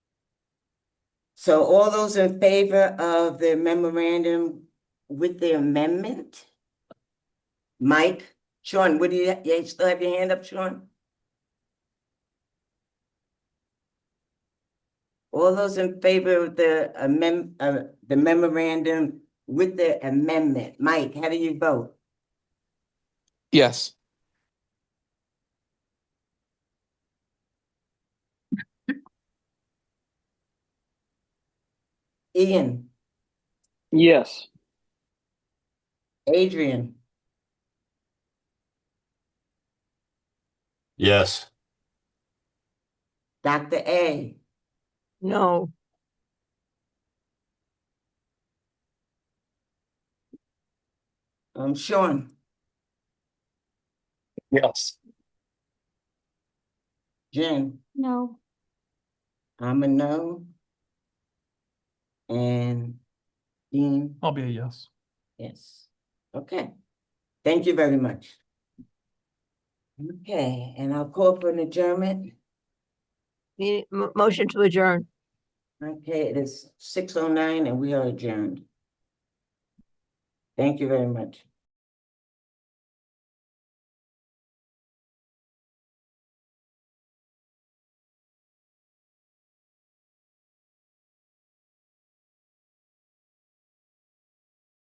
So all those in favor of the memorandum with the amendment? Mike, Sean, what do you, you still have your hand up, Sean? All those in favor of the amend, uh, the memorandum with the amendment, Mike, how do you vote? Yes. Ian, Yes. Adrian, Yes. Dr. A, No. um, Sean, Yes. Jen, No. I'm a no. And Dean, I'll be a yes. yes, okay. Thank you very much. Okay, and I'll call for an adjournment. Need, mo- motion to adjourn. Okay, it is six oh nine and we are adjourned. Thank you very much.